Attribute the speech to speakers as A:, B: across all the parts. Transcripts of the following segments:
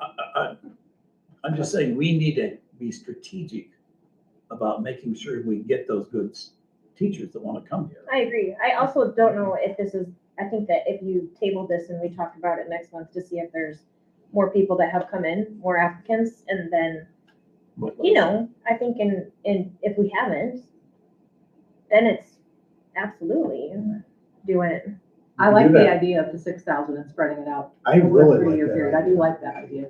A: I- I- I'm just saying, we need to be strategic about making sure we get those good s- teachers that want to come here.
B: I agree. I also don't know if this is, I think that if you table this and we talk about it next month to see if there's more people that have come in, more applicants, and then, you know, I think in, in, if we haven't, then it's absolutely do it.
C: I
D: can
C: like
D: do
C: the
D: that.
C: idea of the six thousand and spreading it out.
D: I
C: over a
D: really
C: three-year
D: like
C: period.
D: that.
C: I do like that idea.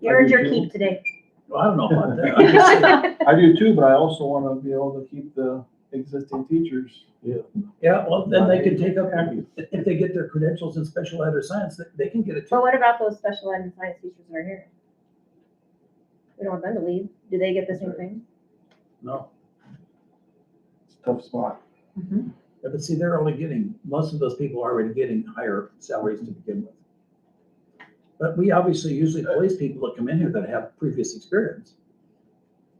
B: You earned
E: do
B: your
E: too.
B: keep today.
A: Well, I don't know about that. I'm just saying,
E: I do too, but I also want to be able to keep the existing teachers.
A: Yeah, well, then they can take up, if they get their credentials in special ed or science, they- they can get a
B: But
A: job.
B: what about those special ed and science teachers that are here? We don't want them to leave. Do they get the same thing?
A: No,
E: It's a tough spot.
B: Mm-hmm.
A: Yeah, but see, they're only getting, most of those people are already getting higher salaries to begin with. But we obviously usually place people that come in here that have previous experience.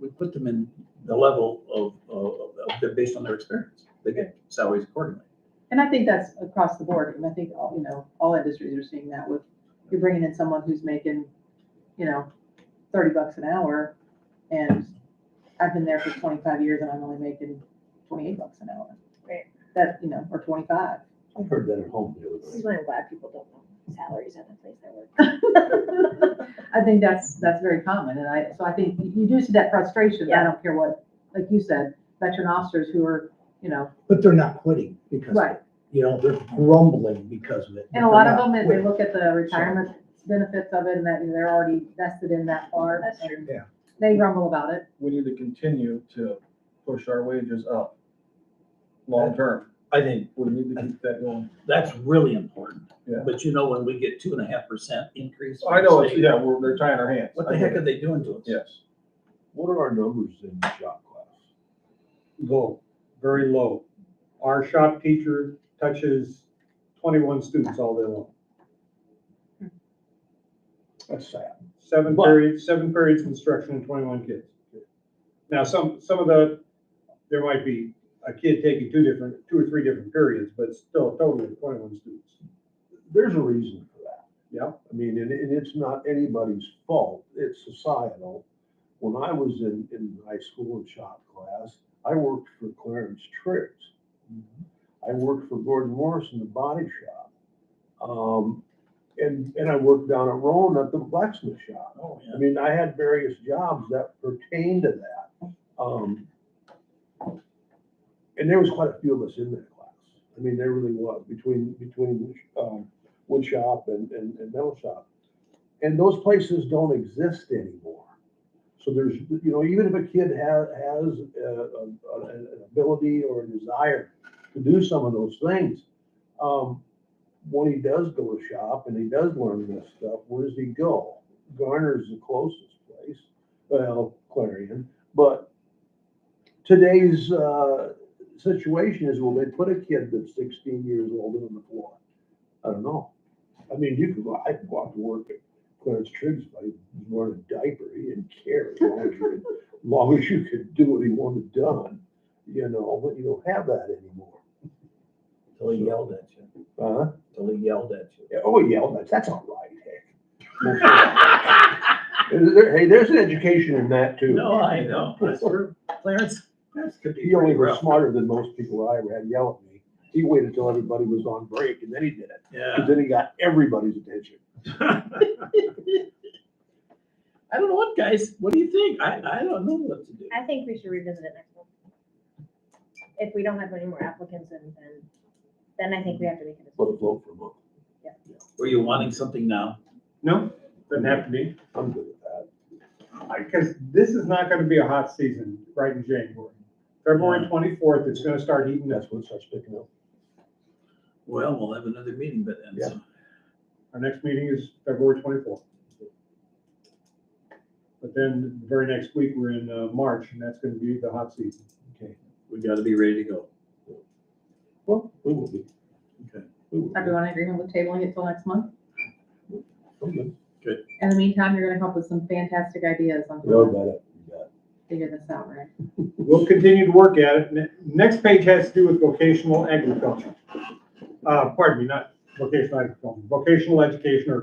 A: We put them in the level of, of, of- they're based on their experience. They get salaries accordingly.
C: And I think that's across the board. And I think, all you know, all industries are seeing that with, you're bringing in someone who's making, you know, thirty bucks an hour. And I've been there for twenty-five years and I'm only making twenty-eight bucks an hour.
B: Right.
C: That, you know, or twenty-five.
D: I've heard that at home.
B: This is why I'm glad people don't know salaries at the place I work.
C: I think that's, that's very common, and I, so I think you do see that frustration, I
B: Yeah.
C: don't care what, like you said, veteran officers who are, you know,
D: But they're not quitting because,
C: right,
D: you know, they're grumbling because of it.
C: and a lot of them, if they look at the retirement benefits of it, and that they're already vested in that part.
B: That's
C: true.
D: Yeah.
C: They grumble about it,
E: We need to continue to push our wages up long-term.
A: I think
E: We need to keep that going.
A: that's really important.
E: Yeah.
A: But you know, when we get two and a half percent increase.
E: I know, it's-
A: from the state,
E: yeah, we're, they're tying our hands.
A: What the heck are they doing to us?
E: Yes.
F: What are our numbers in shop class?
G: low, very low. Our shop teacher touches twenty-one students all day long.
F: That's sad.
G: Seven
F: But-
G: periods, seven periods of instruction and twenty-one kids. Now, some, some of the, there might be a kid taking two different, two or three different periods, but still totally twenty-one students.
F: There's a reason for that.
G: Yeah.
F: I mean, and, and it's not anybody's fault, it's societal. When I was in, in high school in shop class, I worked for Clarence Triggs.
D: Mm-hmm.
F: I worked for Gordon Morrison, the body shop. Um, and, and I worked down at Rowan at the blacksmith shop.
A: Oh, yeah.
F: I mean, I had various jobs that pertained to that. Um, and there was quite a few of us in that class. I mean, there really was between, between, um, wood shop and, and, and metal shop. And those places don't exist anymore. So there's, you know, even if a kid has, has, uh, a- a- an ability or a desire to do some of those things, um, when he does go to shop and he does learn this stuff, where does he go? Garner's the closest place, well, Clarion, but today's, uh, situation is, will they put a kid that's sixteen years old on the floor? I don't know. I mean, you could, I could walk to work at Clarence Triggs, but he was wearing a diaper, he didn't care as long as you, could- as long as you could do what he wanted done, you know, but you don't have that anymore.
A: Till he yelled at you,
F: Uh,
A: till he yelled at you.
F: oh, yeah, that's, that's all right, heck. There- Hey, there's an education in that too.
A: No, I know. I swear, Clarence, Clarence could be
F: He only
A: pretty
F: was
A: rough.
F: smarter than most people I ever had yell at me. He waited till everybody was on break and then he did it.
A: Yeah.
F: Because then he got everybody's attention.
A: I don't know what, guys. What do you think? I, I don't know what to do.
B: I think we should revisit it next month. If we don't have any more applicants and then, then I think we have to make it.
F: Let it float for a month.
A: Were you wanting something now?
G: No, doesn't have to be,
F: I'm good with that.
G: because this is not gonna be a hot season right in January. February twenty-fourth, it's gonna start heating up.
F: That's when it starts picking up.
A: Well, we'll have another meeting, but then, so-
G: Our next meeting is February twenty-fourth. But then the very next week, we're in uh, March, and that's gonna be the hot season.
A: we gotta be ready to go.
F: Well, we will be.
A: Okay.
F: We will be.
C: everyone in agreement with tabling it till next month?
F: I'm good.
C: In the meantime, you're gonna come up with some fantastic ideas on how
F: No,
C: to
F: about it. You got it.
C: figure this out, right?
G: We'll continue to work at it. Ne- Next page has to do with vocational agriculture. Uh, pardon me, not vocational agriculture, vocational education or